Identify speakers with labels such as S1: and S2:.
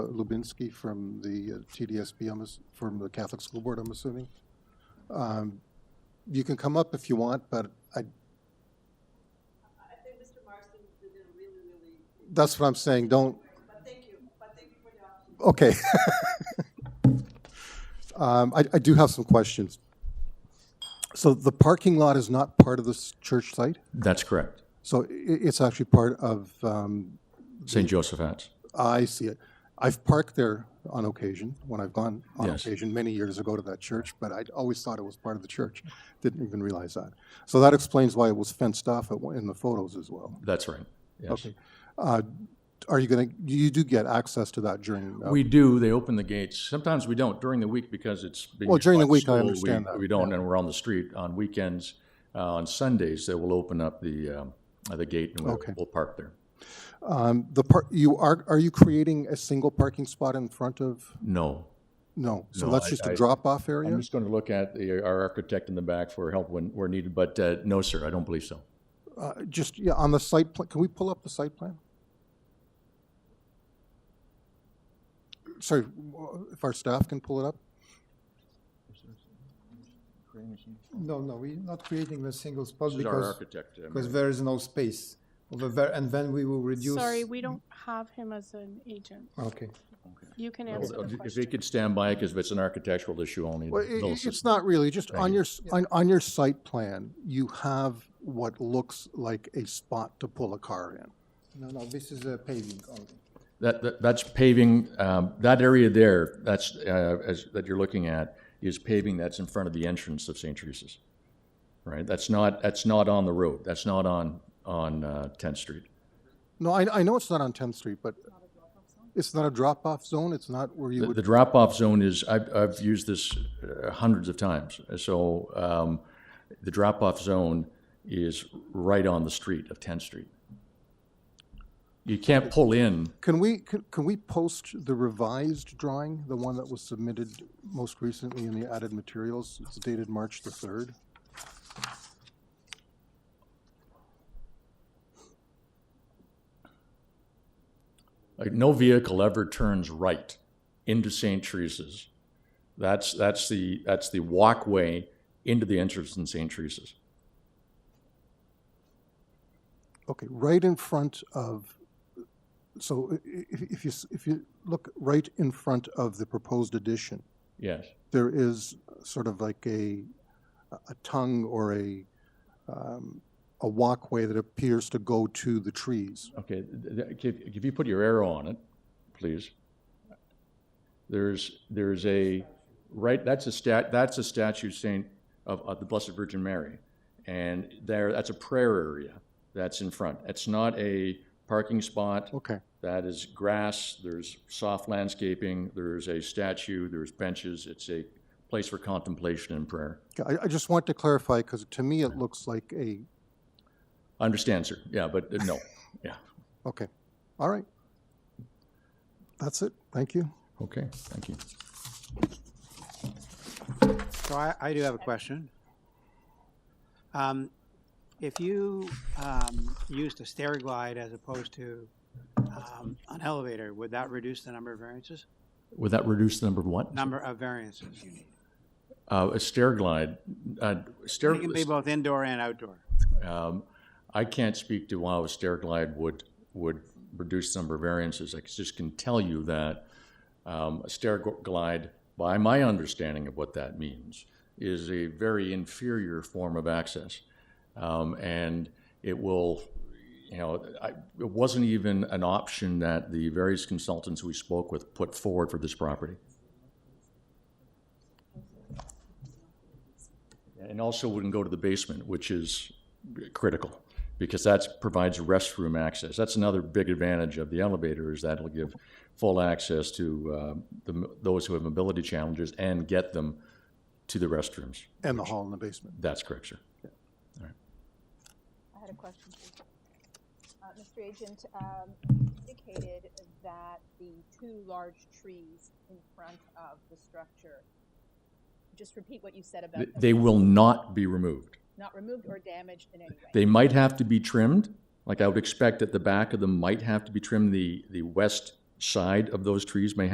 S1: Lubinsky from the uh, TDSB, I'm ass- from the Catholic School Board, I'm assuming. Um, You can come up if you want, but I,
S2: I think Mr. Marston did a really, really,
S1: that's what I'm saying, don't,
S2: but thank you, but thank you for the option.
S1: okay. Um, I, I do have some questions. So the parking lot is not part of this church site?
S3: That's correct.
S1: So i it's actually part of, um,
S3: St. Joseph's.
S1: I see it. I've parked there on occasion, when I've gone on
S3: Yes.
S1: occasion many years ago to that church, but I always thought it was part of the church. Didn't even realize that. So that explains why it was fenced off at one- in the photos as well.
S3: That's right. Yes.
S1: Okay. Uh, Are you going to, you do get access to that during, uh,
S3: We do. They open the gates. Sometimes we don't during the week because it's being
S1: Well, during the
S3: used
S1: week, I
S3: by school.
S1: understand
S3: we,
S1: that,
S3: We don't, and we're on the street on weekends. Uh, on Sundays, they will open up the um, uh, the gate and we'll,
S1: Okay.
S3: we'll park there.
S1: um, the part, you are, are you creating a single parking spot in front of?
S3: No,
S1: No, so
S3: No,
S1: that's
S3: I-
S1: just
S3: I-
S1: a drop-off
S3: I'm
S1: area?
S3: just going to look at the, our architect in the back for help when where needed. But uh, no, sir, I don't believe so.
S1: Uh, Just, yeah, on the site, pla- can we pull up the site plan? Sorry, w- if our staff can pull it up?
S4: No, no, we're not creating a single spot
S3: This is our
S4: because,
S3: architect. uh,
S4: because there is no space over there, and then we will reduce.
S5: Sorry, we don't have him as an agent.
S4: Okay,
S5: You can
S3: Mayor.
S5: answer the
S3: if he
S5: question.
S3: could stand by, because it's an architectural issue only.
S1: Well,
S3: they'll
S1: i- i-
S3: assist.
S1: it's not really, just
S3: Thank
S1: on
S3: you.
S1: your, s- on, on your site plan, you have what looks like a spot to pull a car in.
S4: no, no, this is a paving only.
S3: That, that, that's paving, um, that area there, that's, uh, as, that you're looking at, is paving that's in front of the entrance of St. Teresa's. Right, that's not, that's not on the road, that's not on, on, uh, Tenth Street.
S1: No, I, I know it's not on 10th Street, but it's not a drop-off zone, it's not where you
S3: The,
S1: would,
S3: the drop-off zone is, I've, I've used this uh, hundreds of times, so, um, the drop-off zone is right on the street of Tenth Street. You can't pull in,
S1: can we, can can we post the revised drawing, the one that was submitted most recently in the added materials? It's dated March the 3rd.
S3: Like no vehicle ever turns right into St. Teresa's. That's that's the that's the walkway into the entrance in St. Teresa's.
S1: Okay, right in front of, so i- i- if if you, s- if you look right in front of the proposed addition,
S3: Yes.
S1: there is sort of like a, a tongue or a, um, a walkway that appears to go to the trees.
S3: Okay. th- th- If, if you put your arrow on it, please. There's there's a right. That's a stat. That's a statue Saint of, of the Blessed Virgin Mary, and there that's a prayer area that's in front. It's not a parking spot.
S1: Okay,
S3: That is grass, there's soft landscaping, there's a statue, there's benches. It's a place for contemplation and prayer.
S1: Okay, I, I just want to clarify, because to me it looks like a,
S3: I understand, sir. Yeah, but uh, no. Yeah.
S1: okay, all right. That's it, thank you.
S3: Okay, thank you.
S6: So I, I do have a question. Um, if you, um, used a stair glide as opposed to, um, an elevator, would that reduce the number of variances?
S3: Would that reduce the number of what?
S6: Number of variances.
S3: Uh, a stair glide. Uh, stair.
S6: It can be both indoor and outdoor.
S3: Um, I can't speak to how a stair glide would would reduce the number of variances. I just can tell you that um, a stair gl- glide, by my understanding of what that means, is a very inferior form of access, um, and it will. You know, I, it wasn't even an option that the various consultants we spoke with put forward for this property. And also wouldn't go to the basement, which is critical, because that provides restroom access. That's another big advantage of the elevator, is that it'll give full access to uh, the- those who have mobility challenges and get them to the restrooms.
S1: And the hall in the basement.
S3: That's correct, sir.
S7: I had a question. too. Uh, Mr. Agent, um, indicated that the two large trees in front of the structure, just repeat what you said about
S3: Th-
S7: them,
S3: They will not be removed.
S7: not removed or damaged in any way.
S3: They might have to be trimmed, like I would expect that the back of them might have to be trimmed, the, the west side of those trees may